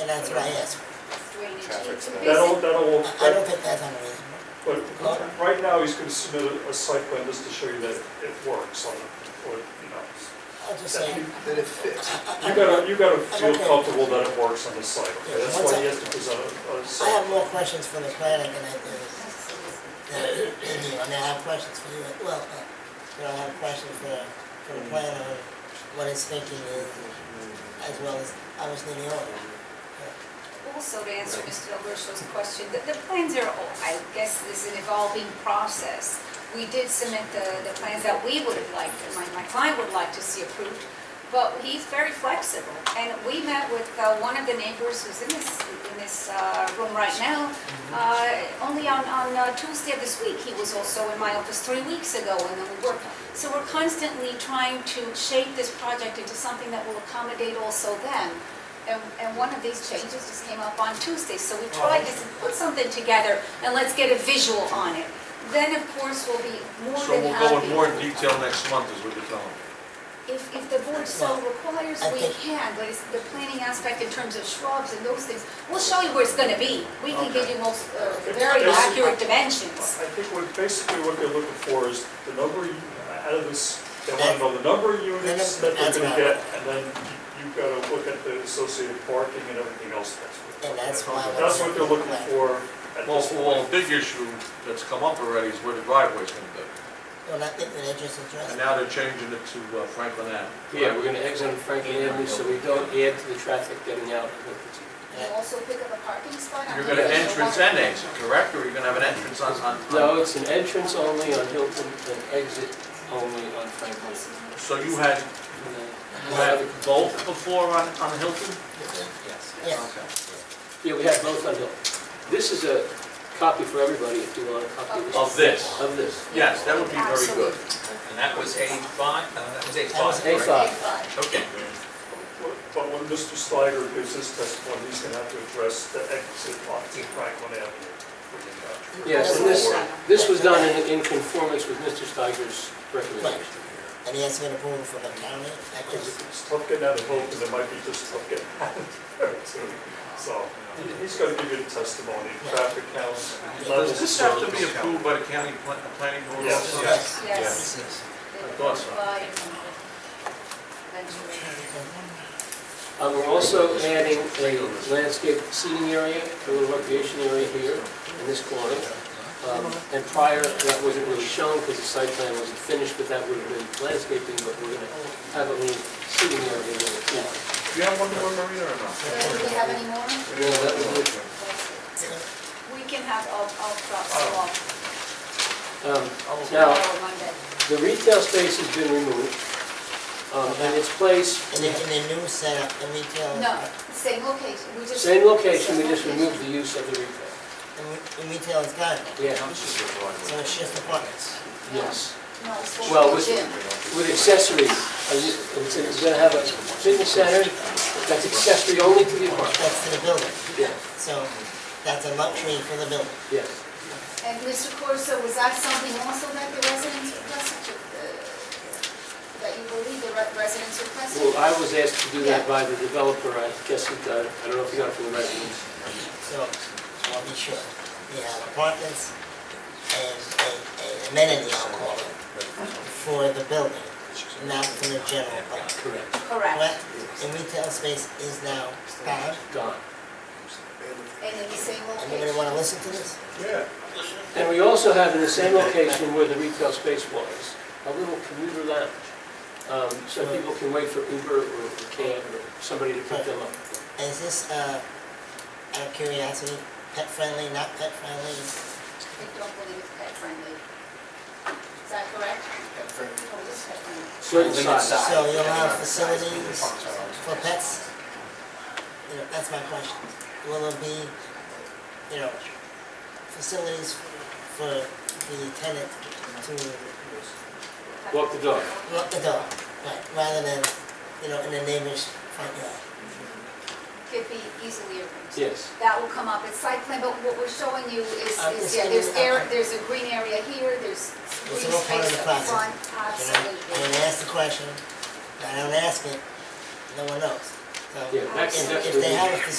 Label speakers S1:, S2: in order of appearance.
S1: and that's what I asked.
S2: Traffic
S3: It's a basic-
S2: study.
S4: That'll, that'll,
S1: I I don't
S4: that-
S1: think that's unreasonable.
S4: but right now, he's gonna submit a, a site plan just to show you that it works on, or, you know.
S1: I'll just say.
S5: that it fits.
S1: I-
S4: You
S1: I-
S4: gotta, you gotta feel
S1: okay.
S4: comfortable that it works on the site, okay? That's why he has to present a, a
S1: I have
S4: site.
S1: more questions for the planner than I do. than you. I mean, I have questions for you, well, uh, you know, I have questions for, for the planner, and what his thinking is, as well as obviously the owner.
S2: Also, to answer Mr. Delgerso's question, the, the plans are, all- I guess this is an evolving process. We did submit the, the plans that we would have liked, and my, my client would like to see approved, but he's very flexible. And we met with, uh, one of the neighbors who's in this, in this, uh, room right now,
S6: Mm-hmm.
S2: uh, only on, on uh, Tuesday of this week. He was also in my office three weeks ago, and then we worked. So we're constantly trying to shape this project into something that will accommodate also them. And, and one of these changes just came up on Tuesday, so we
S6: Oh.
S2: tried to put something together and let's get a visual on it. Then, of course, we'll be more
S6: So
S2: than
S6: we'll go in more
S2: happy.
S6: detail next month is what you're telling me.
S2: If, if the board so requires,
S1: I
S2: we
S1: think-
S2: can, but it's the planning aspect in terms of shrubs and those things, we'll show you where it's gonna be. We can give you most, uh, very
S4: It's-
S2: accurate dimensions.
S4: I think what, basically what they're looking for is the number, of- out of this, they wanna know the number of units that they're gonna get, and then you- you've gotta look at the associated parking and everything else that's. with it.
S1: And that's why I wanna
S4: That's what they're looking for at
S6: Well,
S4: this
S6: well, a
S4: point.
S6: big issue that's come up already is where the driveway's gonna be.
S1: Well, I think that interest is
S6: And
S1: addressed.
S6: now they're changing it to uh, Franklin Ave.
S7: Yeah, we're gonna exit on Franklin Avenue, so we don't add to the traffic getting out of Hilton.
S2: You also pick up a parking spot on.
S6: You're gonna
S2: the-
S6: entrance and exit, correct? Or you're gonna have an entrance on, on? on-
S7: No, it's an entrance only on Hilton and exit only on Franklin.
S6: So you had, you had both before on, on Hilton?
S7: Yes.
S1: Yes,
S7: Yeah, we have both on Hilton. This is a copy for everybody if you want a copy of this.
S6: Of this?
S7: Of this.
S6: Yes, that would be very
S2: Absolutely.
S6: good.
S8: And that was eighty-five, uh, that was eighty-five,
S7: A
S8: right?
S7: five.
S2: But-
S8: Okay.
S4: But when Mr. Slider gives his testimony, he's gonna have to address the exit on Franklin Avenue.
S7: Yes, and this, this was done in, in conformance with Mr. Steiger's recommendation.
S1: and he has to get approval from the county, I guess.
S4: It's tough getting out of vote, because it might be just tough getting out of there too. So, he- he's gonna give you the testimony, traffic counts, levels.
S6: Does this have to be approved by the county pla- planning board?
S4: Yes.
S6: also?
S1: Yes.
S2: Yes.
S6: I thought so.
S2: Eventually.
S7: Uh, We're also adding a landscape seating area, a little recreation area here in this corner. Um, And prior, that wasn't really shown because the site plan wasn't finished, but that would have been landscaping, but we're going to have a little seating area there too.
S6: Do you have one more, Marina, or not?
S2: Do we have any more?
S7: You know, that would be-
S2: We can have all, all crops
S6: Oh.
S2: off
S7: um, Now,
S2: tomorrow, Monday.
S7: the retail space has been removed, um, and it's placed,
S1: And then in the new setup, the retail.
S2: No, same location, we just.
S7: same location, we
S2: Same
S7: just
S2: location.
S7: removed the use of the retail.
S1: The re- the retail is gone,
S7: Yeah,
S6: This is the driveway.
S1: so it's just apartments.
S7: yes.
S2: No, it's for
S7: Well,
S2: the
S7: with-
S2: gym.
S7: with accessories. Are you- It's it's gonna have a fitness center that's accessory only to the apartment.
S1: That's to the building,
S7: Yeah.
S1: so that's a luxury for the building.
S7: Yes.
S2: And Mr. Corso, was that something also that the residents requested, uh, that you believe the re- residents requested?
S7: Well, I was asked to do that by the developer, I guess he got it, I don't know if he got it from the residents.
S1: So, I'll be sure, we have apartments and a- a amenity, I'll call it, for the building, not for the general public.
S7: Correct.
S2: Correct.
S1: Correct? And retail space is now gone,
S7: Gone.
S2: And in the same
S1: anybody
S2: location?
S1: wanna listen to this?
S4: Yeah.
S7: And we also have in the same location where the retail space was, a little commuter lounge. Um, So people can wait for Uber or cab or somebody to pick them up.
S1: Is this, uh, out of curiosity, pet friendly, not pet friendly?
S2: They don't believe it's pet friendly. Is that correct? Oh, it is pet friendly.
S7: Certain size.
S1: So you'll have facilities for pets? You know, that's my question. Will there be, you know, facilities for the tenant to
S7: Walk the dog.
S1: lock the door, right, rather than, you know, in the neighbor's front yard?
S2: Could be easily arranged.
S7: Yes.
S2: That will come up at site plan, but what we're showing you is,
S1: Uh,
S2: is,
S1: it's
S2: yeah,
S1: in
S2: there's
S1: the-
S2: air, there's a green area here, there's green
S1: all part of
S2: space
S1: the
S2: up front,
S1: process. And I- I
S2: absolutely.
S1: didn't ask the question, I don't ask it, no one knows. So
S7: Yeah, that's
S1: if-
S7: that's
S1: If
S7: what
S1: they
S7: we-
S1: have a facility